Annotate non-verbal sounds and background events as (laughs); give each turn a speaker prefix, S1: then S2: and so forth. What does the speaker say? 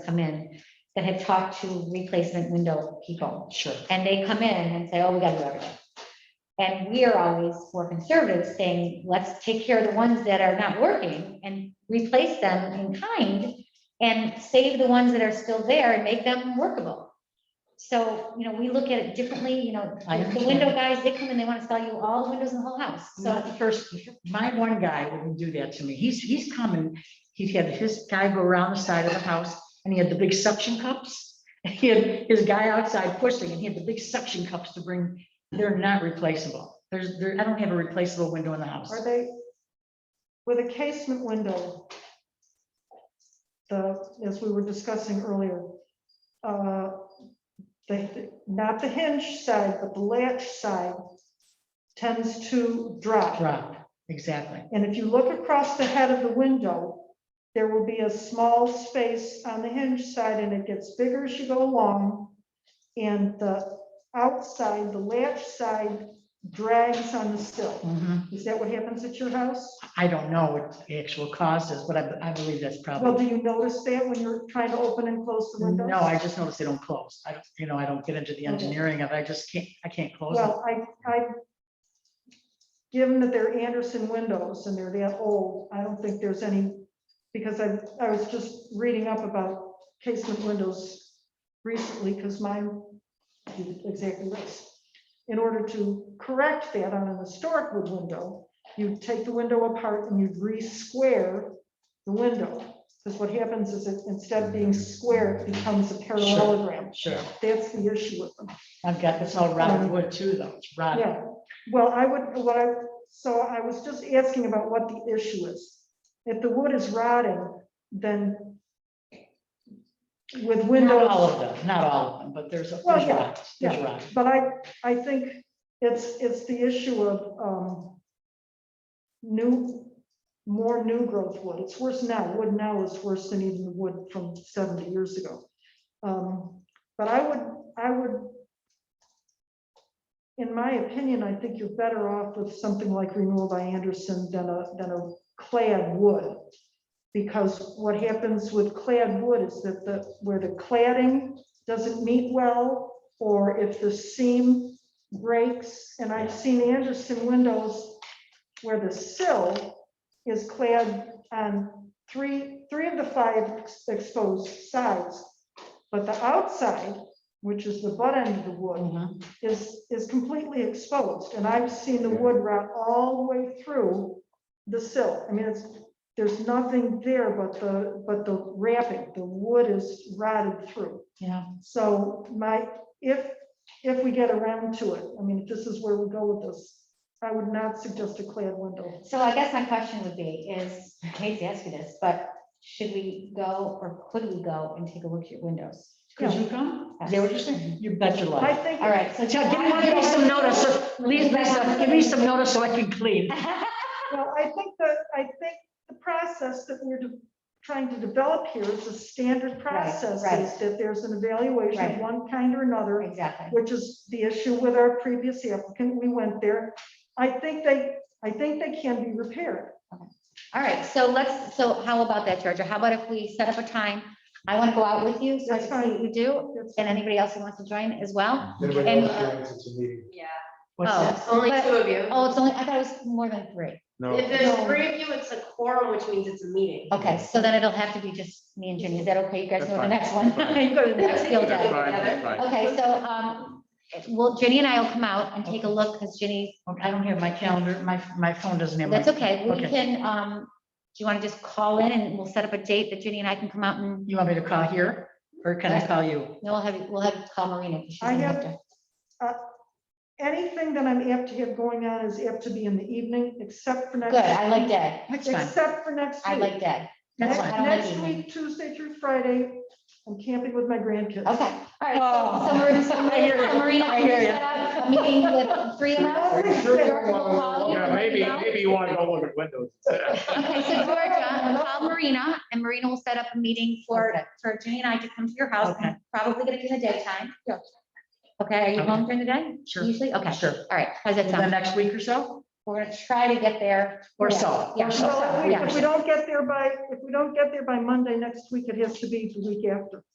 S1: come in that have talked to replacement window people.
S2: Sure.
S1: And they come in and say, oh, we gotta do everything. And we are always more conservative, saying, let's take care of the ones that are not working and replace them in kind and save the ones that are still there and make them workable. So, you know, we look at it differently, you know,
S2: I
S1: the
S2: understand.
S1: window guys, they come in, they wanna sell you all the windows in the whole house,
S2: Not
S1: so.
S2: the first, my one guy wouldn't do that to me. He's, he's coming, he had his guy go around the side of the house and he had the big suction cups. (laughs) He had his guy outside pushing and he had the big suction cups to bring, they're not replaceable. There's, there, I don't have a replaceable window in the house.
S3: Are they, with a casement window, the, as we were discussing earlier, uh, the, not the hinge side, but the latch side tends to drop.
S2: Drop, exactly.
S3: And if you look across the head of the window, there will be a small space on the hinge side and it gets bigger as you go along. And the outside, the latch side drags on the sill.
S2: Mhm.
S3: Is that what happens at your house?
S2: I don't know what the actual cause is, but I, I believe that's
S3: Well,
S2: probably,
S3: do you notice that when you're trying to open and close the windows?
S2: no,
S3: Oh.
S2: I just noticed they don't close. I don't, you know, I don't get into the engineering of it. I just can't, I can't close them.
S3: Well, I, I, given that they're Anderson windows and they're that old, I don't think there's any, because I, I was just reading up about casement windows recently, because mine did exactly this. In order to correct that on an historic wood window, you take the window apart and you'd re-square the window. Because what happens is it, instead of being square, it becomes a parallelogram.
S2: Sure.
S3: That's the issue with them.
S2: I've got this all rotted wood too, though. It's rotted.
S3: Yeah, well, I would, what I, so I was just asking about what the issue is. If the wood is rotting, then with
S2: Not all
S3: windows,
S2: of them, not all of them, but there's, a-
S3: Well,
S2: there's
S3: yeah,
S2: rot, there's
S3: yeah.
S2: rot.
S3: but I, I think it's, it's the issue of, um, new, more new growth wood. It's worse now. Wood now is worse than even the wood from seventy years ago. Um, But I would, I would, in my opinion, I think you're better off with something like renewal by Anderson than a, than a clad wood. Because what happens with clad wood is that the, where the cladding doesn't meet well, or if the seam breaks, and I've seen Anderson windows where the sill is clad on three, three of the five ex- exposed sides. But the outside, which is the butt end of the wood,
S2: Mhm.
S3: is, is completely exposed, and I've seen the wood rot all the way through the sill. I mean, it's, there's nothing there but the, but the wrapping, the wood is rotted through.
S2: Yeah,
S3: So my, if, if we get around to it, I mean, if this is where we go with this, I would not suggest a clad window.
S1: So I guess my question would be is, I hate to ask you this, but should we go or could we go and take a look at your windows?
S2: could you come? Is that what you're saying? You bet your
S3: I
S2: life.
S3: think,
S1: All right, so.
S2: Tell- Give me- give me some notice, so- leave me some, give me some notice so I can clean.
S3: well, I think that, I think the process that we're de- trying to develop here is a standard process,
S1: right.
S3: is that there's an evaluation of
S1: Right.
S3: one kind or
S1: (laughs)
S3: another,
S1: Exactly.
S3: which is the issue with our previous applicant, we went there. I think they, I think they can be repaired.
S1: All right, so let's, so how about that, Georgia? How about if we set up a time? I want to go out with you, so I
S3: That's
S1: can see what
S3: fine.
S1: you do,
S3: That's-
S1: and anybody else who wants to join as well.
S4: Everybody
S1: And,
S4: else
S1: uh,
S4: joins, it's a meeting.
S5: Yeah,
S2: What's
S1: Oh.
S2: that?
S5: only
S1: But-
S5: two of you.
S1: Oh, it's only, I thought it was more than three.
S4: No,
S5: If there's three of you, it's a quorum, which means it's a meeting.
S1: Okay, so then it'll have to be just me and Ginny. Is that okay? You guys
S4: That's
S1: go to the
S4: fine.
S1: next one. (laughs)
S4: Fine.
S1: You go to the next field
S4: that's
S1: day.
S4: fine, that's fine.
S1: Okay, so, um, well, Ginny and I will come out and take a look, because Ginny,
S2: Okay, I don't have my calendar, my, my phone doesn't have. my-
S1: that's okay. We
S2: Okay.
S1: can, um, do you want to just call in and we'll set up a date that Ginny and I can come out and,
S2: You want me to call here or can I call you?
S1: no, we'll have, you- we'll have you call Marina. 'cause she's
S3: I
S1: in
S3: have-
S1: Upton.
S3: Anything that I'm apt to have going on is apt to be in the evening, except for next.
S1: Good, I like that.
S2: That's fine.
S3: Except for next week.
S1: I like that.
S2: That's
S3: Next
S1: I
S2: fine.
S1: don't like
S3: next
S1: evening.
S3: week, Tuesday through Friday, I'm camping with my grandkids.
S1: Okay, all right. so- So Marina, so
S2: I hear
S1: Marina-
S2: you.
S1: so Marina,
S2: I
S1: can you
S2: hear you.
S1: set up a meeting with three of us?
S3: I'm sure
S1: Georgia will call you.
S4: Yeah, maybe,
S1: Marina.
S4: maybe you want to go look at windows.
S1: Okay, so Georgia, call Marina, and Marina will set up a meeting for, for Ginny and I to come to your house,
S2: Okay.
S1: probably gonna be in the daytime. Okay, are you
S2: Okay.
S1: home during the day?
S2: Sure.
S1: Usually, okay,
S2: Sure.
S1: all right, how's that
S2: The
S1: sound?
S2: next week or so?
S1: We're gonna try to get there.
S2: Or so,
S1: Yeah.
S2: or so.
S3: So if we-
S1: yeah.
S3: if we don't get there by, if we don't get there by Monday next week, it has to be the week after.